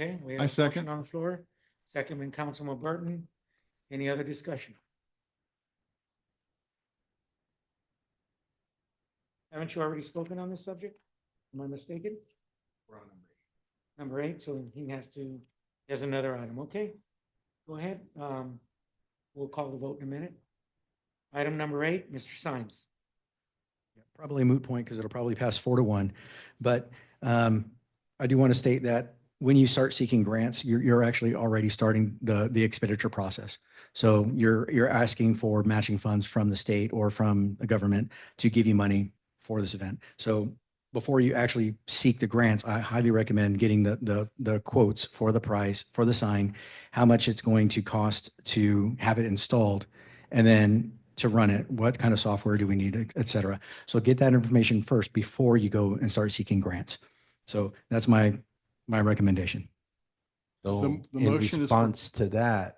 Okay, we I have a second. motion on the floor, second by Councilman Burton. Any other discussion? Haven't you already spoken on this subject? Am I mistaken? Number eight, so he has to, he has another item, okay? Go ahead, um, we'll call the vote in a minute. Item number eight, Mr. Sines. Yeah, Probably a moot point because it'll probably pass four to one. But um, I do want to state that when you start seeking grants, you're, you're actually already starting the, the expenditure process. So you're, you're asking for matching funds from the state or from the government to give you money for this event. So before you actually seek the grants, I highly recommend getting the, the, the quotes for the price, for the sign, how much it's going to cost to have it installed, and then to run it, what kind of software do we need, et- et cetera. So get that information first before you go and start seeking grants. So that's my, my recommendation. So the in motion is for- response to that,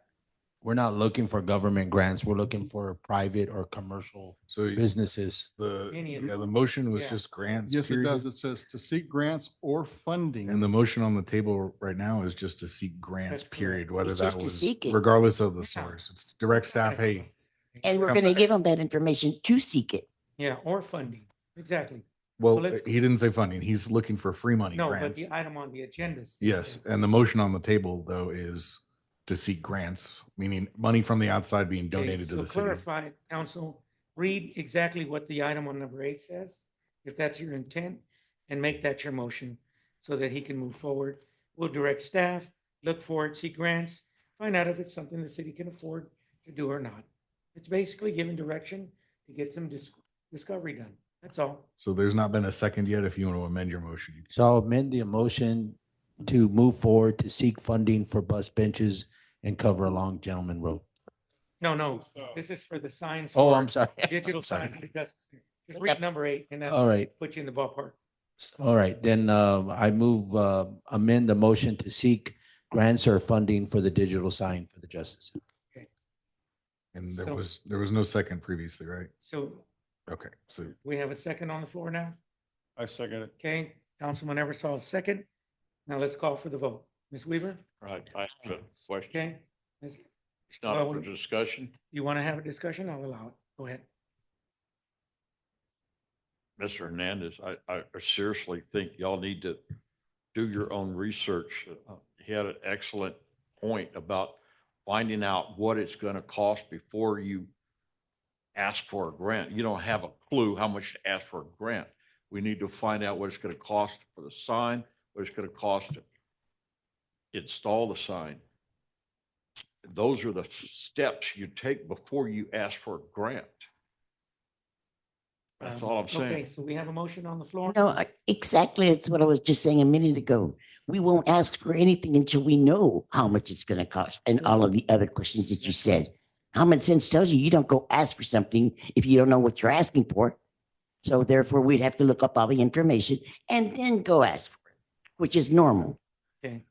we're not looking for government grants. We're looking for private or commercial So y- businesses. the, Any of yeah, them. the motion was Yeah. just grants. Yes, it period. does. It says to seek grants or funding. And the motion on the table right now is just to seek grants, That's correct. period, whether It's that just to was, seek it. regardless of the Yeah. source. It's direct staff, hey, And we're Okay. going to give them that information to seek it. Yeah, or funding, exactly. well, let's- he didn't say funding. He's looking for free money No, but grants. the item on the agenda. says Yes, that. and the motion on the table though is to seek grants, meaning money from the outside being Okay, donated to so the city. Clarify, council, read exactly what the item on number eight says, if that's your intent, and make that your motion so that he can move forward. We'll direct staff, look for it, see grants, find out if it's something the city can afford to do or not. It's basically giving direction to get some dis- discovery done. That's all. So there's not been a second yet. If you want to amend your motion, you can. So I'll amend the motion to move forward to seek funding for bus benches and cover along Gentleman Road. No, no, this is for the signs. Oh, for I'm sorry. Digital I'm sorry. signs. Just just read number eight and All that'll right, put you in the ballpark. all right. Then uh, I move, uh, amend the motion to seek grants or funding for the digital sign for the Justice Center. And So- there was, there was no second previously, right? So Okay, so we have a second on the floor now? I second it. Okay, Councilman Eversol, second. Now let's call for the vote. Ms. Weaver, Right, I have a question. okay? Ms. It's not well, for we- discussion. You want to have a discussion? I'll allow it. Go ahead. Mr. Hernandez, I, I seriously think y'all need to do your own research. Uh, He had an excellent point about finding out what it's going to cost before you ask for a grant. You don't have a clue how much to ask for a grant. We need to find out what it's going to cost for the sign, what it's going to cost to install the sign. Those are the steps you take before you ask for a grant. That's Um, all I'm saying. Okay, so we have a motion on the floor? No, I- exactly. That's what I was just saying a minute ago. We won't ask for anything until we know how much it's going to cost and all of the other questions that you said. Common sense tells you, you don't go ask for something if you don't know what you're asking for. So therefore, we'd have to look up all the information and then go ask for it, which is normal. Okay.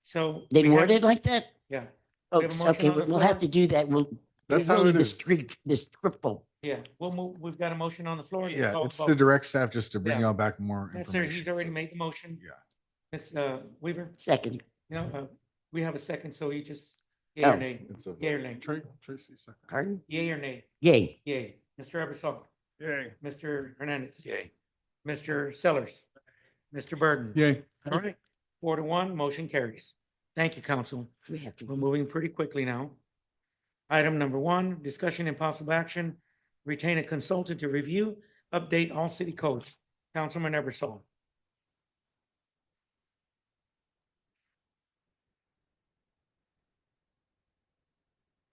So. They we have- word it like that? Yeah, We have a Folks, motion okay, on the we'll have to floor. do that. We'll. that's how really it is. discreet- Descriptive. yeah. We'll move, we've got a motion on the floor. Let's Yeah, call it's vote. the direct staff just to bring Yeah. y'all back more That's it. He's information, already so- made the motion. Yeah. Ms. uh, Weaver, Second. no, uh, we have a second, so you just, yea Oh. or nay? It's a vote. Yea or nay? Tra- Tracy, second. Pardon? Yea or nay? Yay. Yay. Mr. Eversol, Yay. Mr. Hernandez. Mr. Sellers, Mr. Burden. Yay. All right, four to one, motion carries. Thank you, council. We have to. We're moving pretty quickly now. Item number one, discussion and possible action, retain a consultant to review, update all city codes. Councilman Eversol.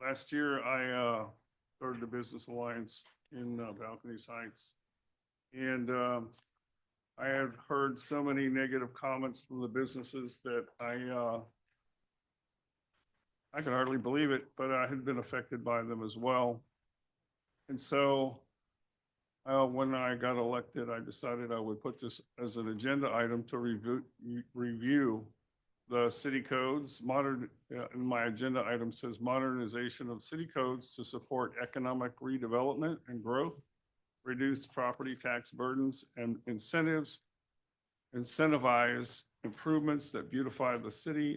Last year, I uh, started the Business Alliance in uh, Balconies Heights. And um, I had heard so many negative comments from the businesses that I, uh, I could hardly believe it, but I had been affected by them as well. And so uh, when I got elected, I decided I would put this as an agenda item to review, review the city codes, modern, uh, in my agenda item says modernization of city codes to support economic redevelopment and growth, reduce property tax burdens and incentives, incentivize improvements that beautify the city